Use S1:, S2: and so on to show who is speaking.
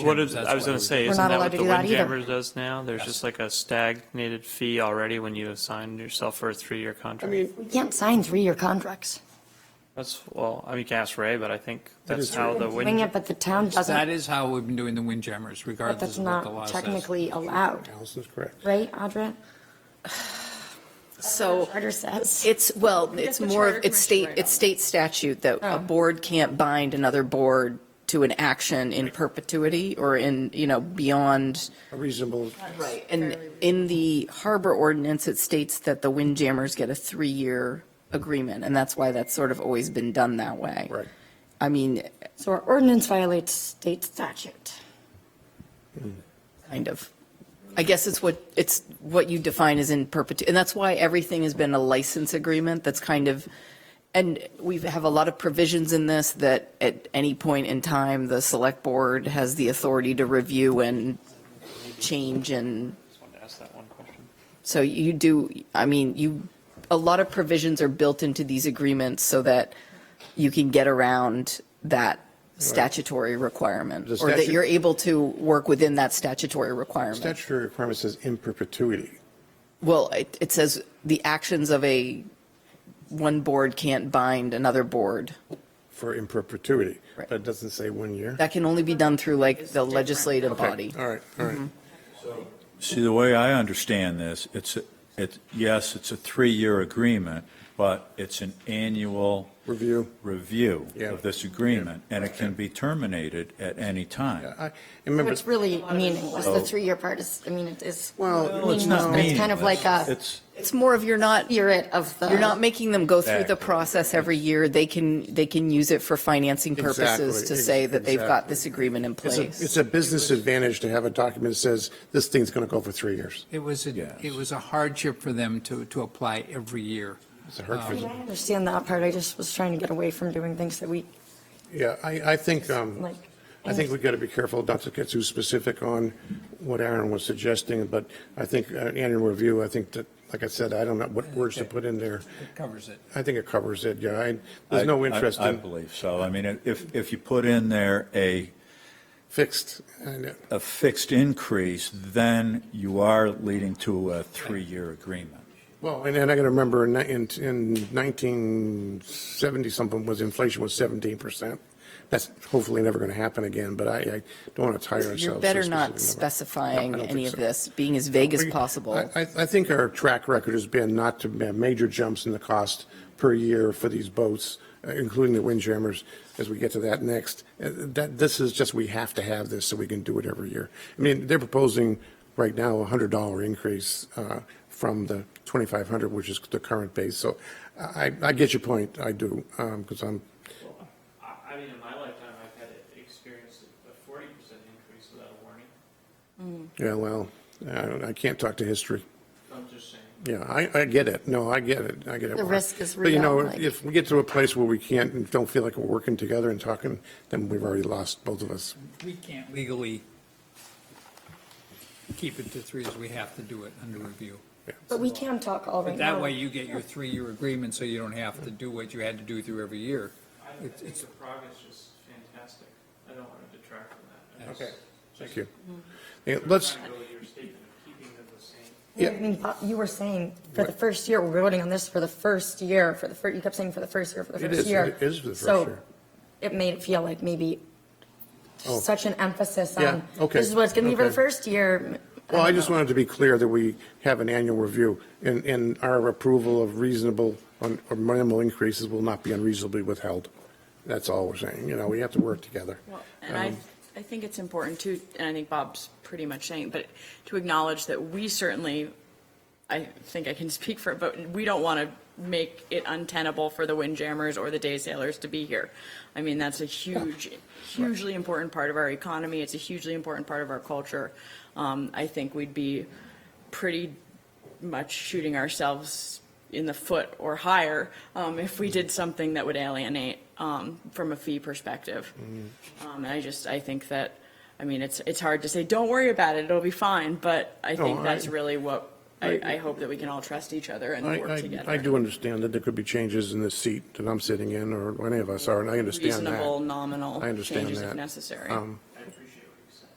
S1: What is, I was going to say,
S2: We're
S1: isn't
S2: not
S1: that
S2: allowed
S1: what
S2: to
S1: the
S2: do that either.
S1: Windjammer does now? There's just like a stagnated fee already when you assign yourself for a three-year
S3: I
S1: contract?
S3: mean,
S2: We can't sign three-year contracts.
S1: That's, well, I mean, you can ask Ray, but I think that's
S3: is
S1: how the
S2: Doing
S1: wind,
S2: it, but the town
S4: That
S2: doesn't,
S4: is how we've been doing the windjammers,
S2: but
S4: regardless
S2: that's
S4: of what the law
S2: not
S4: says.
S2: technically allowed,
S3: Allison's correct.
S2: right, Audra?
S5: So
S2: Charter says.
S5: it's, well,
S6: That's
S5: it's
S6: the
S5: more,
S6: Charter
S5: of- it's state,
S6: Commission right
S5: it's state statute that a
S2: Oh.
S5: board can't bind another board to an action in perpetuity or in, you know, beyond.
S3: A reasonable,
S5: Right. And in the harbor ordinance, it states that the windjammers get a three-year agreement, and that's why that's sort of always been done that way.
S3: right.
S5: I mean,
S2: So our ordinance violates state statute.
S5: kind of. I guess it's what, it's what you define as in perpetuity, and that's why everything has been a license agreement that's kind of, and we have a lot of provisions in this that at any point in time, the select board has the authority to review and change and,
S1: I just wanted to ask that one question.
S5: so you do, I mean, you, a lot of provisions are built into these agreements so that you can get around that statutory requirement,
S3: The
S5: or that
S3: statute-
S5: you're able to work within that statutory requirement.
S3: Statutory requirement says in perpetuity.
S5: Well, it, it says the actions of a, one board can't bind another board.
S3: for in perpetuity,
S5: Right.
S3: but it doesn't say one year.
S5: That can only be done through like the legislative
S3: Okay,
S5: body. Mm-hmm.
S3: All right, all right.
S7: See, the way I understand this, it's, a- it, yes, it's a three-year agreement, but it's an annual
S3: Review.
S7: review
S3: Yeah.
S7: of this agreement, and it can be terminated at any time.
S3: I, and remember,
S2: It's really meaningless, the
S7: Oh.
S2: three-year part is, I mean, it is.
S3: Well,
S7: Well, it's not
S2: but It's kind of like
S7: meaningless.
S2: a
S7: It's,
S5: It's more of you're not, you're
S2: spirit of the.
S5: not making them go through the
S7: Exactly.
S5: process every year. They can, they can use it for financing purposes
S3: Exactly,
S5: to
S3: ex-
S5: say that they've got
S3: exactly.
S5: this agreement in
S3: it's a,
S5: place.
S3: it's a business advantage to have a document that says, this thing's going to go for three years.
S4: It was,
S7: Yes.
S4: a- it was a hardship for them to, to apply every year.
S3: It's a hurt for
S2: I mean,
S3: them.
S2: I understand that part, I just was trying to get away from doing things that we,
S3: Yeah, I, I think, um,
S2: like.
S3: I think we've got to be careful not to get too specific on what Aaron was suggesting, but I think uh, annual review, I think that, like I said, I don't know what words to put in there.
S4: It covers it.
S3: I think it covers it, yeah. I, there's
S7: I-
S3: no
S7: I-
S3: interest
S7: I
S3: in
S7: believe so. I mean, if, if you put in there a,
S3: fixed. and, uh,
S7: a fixed increase, then you are leading to a three-year agreement.
S3: Well, and then I got to remember in, in in 1970 something was inflation was 17%. That's hopefully never going to happen again, but I, I don't want to tire ourselves.
S5: You're
S3: to
S5: better
S3: a
S5: not
S3: specific number.
S5: specifying
S3: No, I don't
S5: any
S3: think
S5: of
S3: so.
S5: this, being as vague as
S3: We-
S5: possible.
S3: I, I I think our track record has been not to have major jumps in the cost per year for these boats, uh, including the windjammers, as we get to that next. Uh, That, this is just, we have to have this so we can do it every year. I mean, they're proposing right now a hundred dollar increase, uh, from the twenty-five hundred, which is the current base. So I, I get your point, I do, um, because I'm,
S1: I mean, in my lifetime, I've had experience a 40% increase without a warning.
S3: yeah, well, I don't, I can't talk to history.
S1: I'm just saying.
S3: Yeah, I, I get it. No, I get it. I get it.
S2: The
S3: Warren.
S2: risk is
S3: But you
S2: real,
S3: know,
S2: like-
S3: if we get to a place where we can't, and don't feel like we're working together and talking, then we've already lost both of us.
S4: We can't legally keep it to threes. We have to do it under review.
S2: But we can talk all right
S4: But
S2: now.
S4: that way you get your three-year agreement, so you don't have to do what you had to do through every year.
S1: I
S4: It's-
S1: think
S4: it's-
S1: the progress is fantastic. I don't want to detract from that. I
S4: Okay.
S1: just-
S3: Thank you.
S2: Mm-hmm.
S3: Yeah, Let's,
S1: trying to go with your statement of keeping them the same.
S2: I mean, Bob, you were saying for the first year, we're voting on this for the first year, for the first, you kept saying for the first year, for the
S3: It
S2: first
S3: is,
S2: year.
S3: it is for the first
S2: So
S3: year.
S2: It made it feel like maybe
S3: Oh.
S2: such an emphasis
S3: Yeah,
S2: on,
S3: okay,
S2: this is what it's going to be for the
S3: okay.
S2: first year.
S3: well, I
S2: don't
S3: just
S2: know.
S3: wanted to be clear that we have an annual review and, and our approval of reasonable un- or minimal increases will not be unreasonably withheld. That's all we're saying. You know, we have to work together.
S6: Well, And I, I think it's important to, and I think Bob's pretty much saying, but to acknowledge that we certainly, I think I can speak for, it, but we don't want to make it untenable for the windjammers or the day sailors to be here. I mean, that's a huge, hugely important part of our economy. It's a hugely important part of our culture. Um, I think we'd be pretty much shooting ourselves in the foot or higher um, if we did something that would alienate um, from a fee perspective.
S3: Mm-hmm.
S6: Um, and I just, I think that, I mean, it's, it's hard to say, don't worry about it, it'll be fine, but I think
S3: I-
S6: that's really what, I,
S3: I-
S6: I hope that we can all trust each other and
S3: I,
S6: work
S3: I, I
S6: together.
S3: do understand that there could be changes in the seat that I'm sitting in or any of us are, and I understand that.
S6: Reasonable, nominal
S3: I understand
S6: changes if
S3: that.
S6: necessary.
S3: Um,